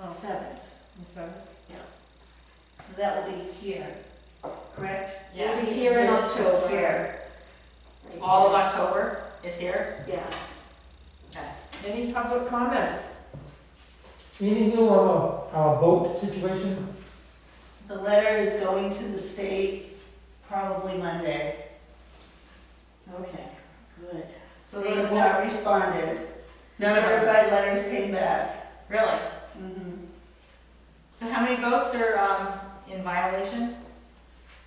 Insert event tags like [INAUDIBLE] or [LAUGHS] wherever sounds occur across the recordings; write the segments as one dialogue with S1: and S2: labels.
S1: no, seventh.
S2: The seventh?
S1: So that will be here, correct?
S3: We'll be
S4: Yes.
S3: here in October.
S1: Here.
S3: All of October is here?
S4: Yes.
S3: Okay.
S2: Any public comments?
S5: Anything new on our- our boat situation?
S1: The letter is going to the state probably Monday.
S3: Okay.
S1: Good.
S3: So
S1: They
S3: the
S1: have
S3: board,
S1: not responded. The
S3: No, no, no.
S1: certified letters came back.
S3: really?
S1: Mhm.
S3: So how many boats are, um, in violation?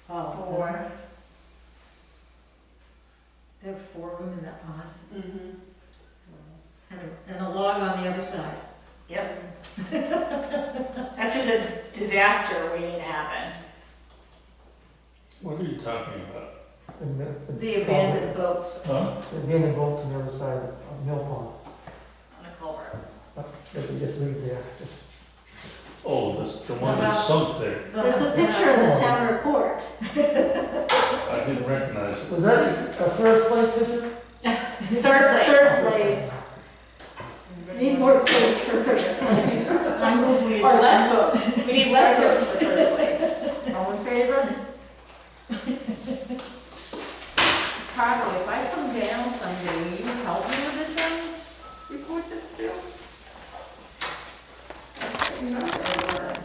S2: Oh,
S1: Four.
S2: There are four of them in that pond,
S1: Mhm.
S2: and a, and a log on the other side.
S3: Yep. That's just a disaster waiting to happen.
S6: What are you talking about?
S5: in The
S2: The abandoned boats.
S6: Huh?
S5: The abandoned boats on the other side of Mill Pond,
S3: On a culvert.
S5: that we just leave there, just
S6: Oh, that's the one that
S2: About-
S6: sunk there.
S4: There's a picture in the town report.
S6: I didn't recognize it.
S5: Was that a first place
S3: Third
S5: picture?
S3: place.
S4: Third place. Need more points for first place.
S2: I move we.
S3: Or less votes. We
S2: [LAUGHS]
S3: need less votes for third place.
S2: All in favor? Carly, if I come down someday, will you help me with the town report that's due?
S1: So,